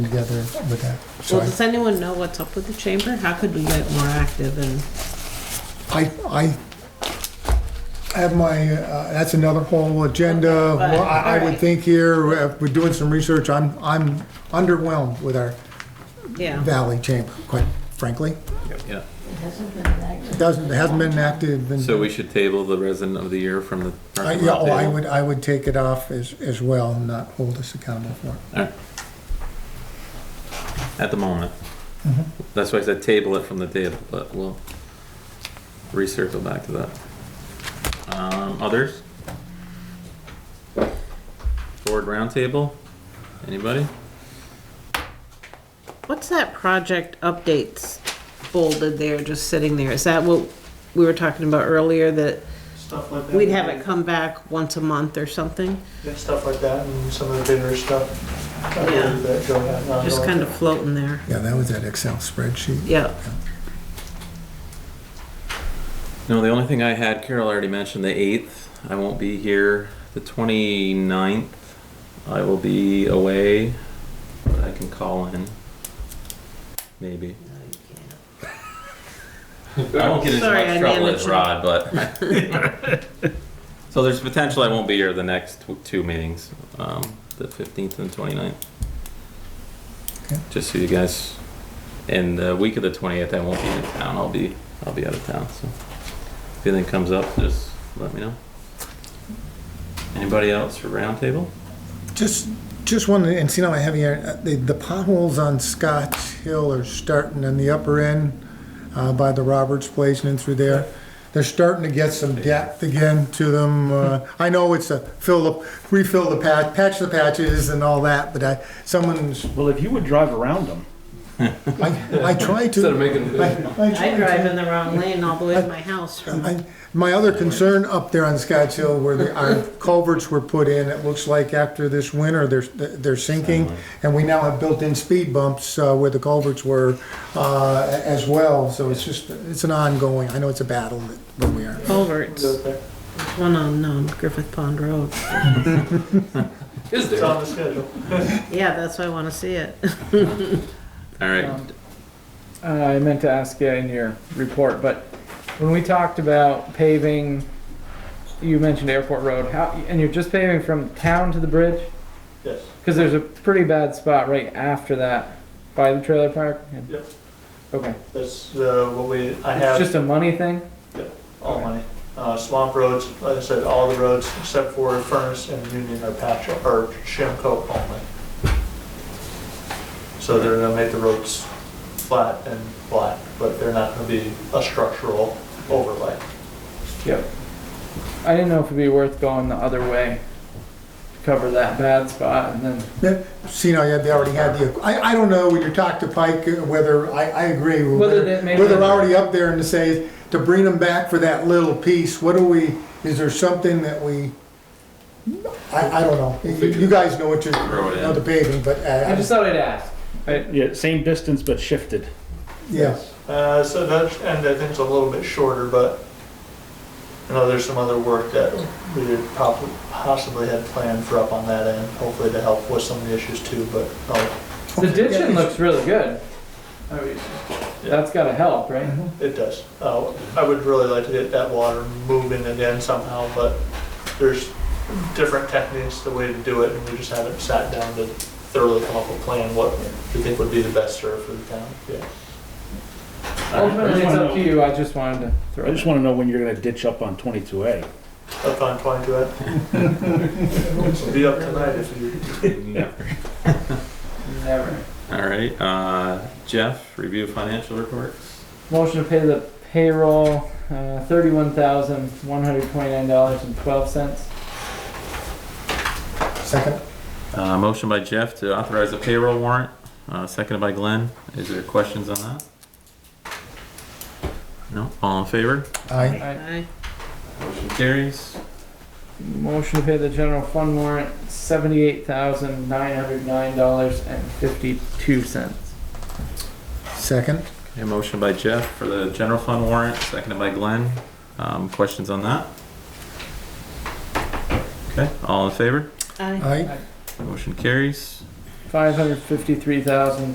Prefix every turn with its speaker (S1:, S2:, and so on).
S1: together with that. So
S2: Well,
S1: I-
S2: does anyone know what's up with the chamber? How could we get more active and,
S1: I, I have my, uh, that's another whole agenda.
S2: Okay,
S1: Well, I, I would
S2: alright.
S1: think here, uh, we're doing some research, I'm, I'm underwhelmed with our
S2: yeah,
S1: Valley Chamber, quite frankly.
S3: Yeah,
S1: It Doesn't, it hasn't been active and.
S3: so we should table the resident of the year from the.
S1: I- Yeah, oh, I would, I would take it off as, as well and not hold us accountable for it.
S3: Alright. At the moment.
S1: Mm-hmm.
S3: That's why I said table it from the table, but we'll recircle back to that. Um, others? Board roundtable? Anybody?
S2: what's that project updates folded there, just sitting there? Is that what we were talking about earlier, that
S4: stuff like that.
S2: we'd have it come back once a month or something?
S4: Yeah, Stuff like that and some of the bigger stuff. uh,
S2: Yeah.
S4: That go on.
S2: Just kind of floating there,
S1: Yeah, that was that Excel spreadsheet.
S2: yeah.
S3: No, the only thing I had, Carol already mentioned the eighth. I won't be here. The 29th, I will be away, but I can call in. Maybe. I won't get into
S2: Sorry, I
S3: much trouble as
S2: managed it.
S3: Rod, but. so there's potential I won't be here the next tw- two meetings, um, the 15th and 29th.
S1: Okay.
S3: Just so you guys, and the week of the 20th, I won't be in town. I'll be I'll be out of town. So if anything comes up, just let me know. Anybody else for roundtable?
S1: Just, just wanted, and see now I have here, uh, the, the potholes on Scotts Hill are starting on the upper end uh, by the Roberts Place and in through there. They're starting to get some depth again to them. Uh, I know it's a fill the, refill the patch, patch the patches and all that, but I, someone's,
S5: Well, if you would drive around them,
S1: I, I try to. Instead of making.
S2: I drive in the wrong lane all the way to my house from,
S1: I- My other concern up there on Scotts Hill where the, our culverts were put in, it looks like after this winter, they're, they're sinking. And we now have built-in speed bumps uh, where the culverts were uh, as well, so it's just, it's an ongoing, I know it's a battle that where we are.
S2: Culverts,
S4: Do it there.
S2: one on um, Griffith Pond Road.
S3: Is
S4: It's on the schedule.
S2: Yeah, that's why I wanna see it.
S3: All right.
S6: Uh, I meant to ask you in your report, but when we talked about paving, you mentioned Airport Road, how, and you're just paving from town to the bridge?
S4: Yes.
S6: Because there's a pretty bad spot right after that by the trailer park?
S4: Yep.
S6: Okay,
S4: That's uh, what we, I
S6: it's
S4: have
S6: just a money thing?
S4: all money. Uh, Swamp roads, like I said, all the roads except for Furnace and Union are patch, or shim coat only. So they're gonna make the roads flat and black, but they're not gonna be a structural overlay.
S6: Yep. I didn't know if it'd be worth going the other way to cover that bad spot and then,
S1: Yeah, See, now, yeah, they already had the, I, I don't know, when you talk to Pike, uh, whether, I, I agree. with
S6: Whether that maybe-
S1: Whether already up there and to say, to bring them back for that little piece, what do we, is there something that we, I, I don't know. You you guys know what you're,
S3: Throw it in.
S1: know the paving, but,
S6: I
S1: uh,
S6: just thought I'd ask. I-
S5: yeah, same distance but shifted.
S1: yeah.
S4: Uh, so that's, and I think it's a little bit shorter, but I know there's some other work that we had probably, possibly had planned for up on that end, hopefully to help with some of the issues too, but, oh,
S6: The ditching
S1: Yeah,
S6: looks really good. I mean, That's gotta help, right?
S4: it does. Uh, I would really like to get that water moving again somehow, but there's different techniques, the way to do it, and we just haven't sat down to thoroughly come up with a plan, what we think would be the best serve for the town, yeah.
S6: Ultimately, it's
S5: wanna
S6: up to
S5: know-
S6: you, I just wanted to
S5: I
S6: throw
S5: just
S6: it.
S5: want to know when you're gonna ditch up on twenty-two A.
S4: Up on twenty-two, eh? be up tonight if you.
S6: Never.
S3: All right. Uh, Jeff, review financial reports.
S6: Motion to pay the payroll, uh, thirty-one thousand, one hundred twenty-nine dollars and twelve cents.
S1: Second,
S3: Uh, motion by Jeff to authorize a payroll warrant, uh, seconded by Glenn. Is there questions on that? No? All in favor?
S1: aye.
S2: Aye.
S3: Motion carries.
S6: Motion to pay the general fund warrant, seventy-eight thousand, nine hundred nine dollars and fifty-two cents.
S1: Second,
S3: A motion by Jeff for the general fund warrant, seconded by Glenn. Um, questions on that? Okay, all in favor?
S2: Aye.
S1: aye.
S3: Motion carries.
S6: five hundred fifty-three thousand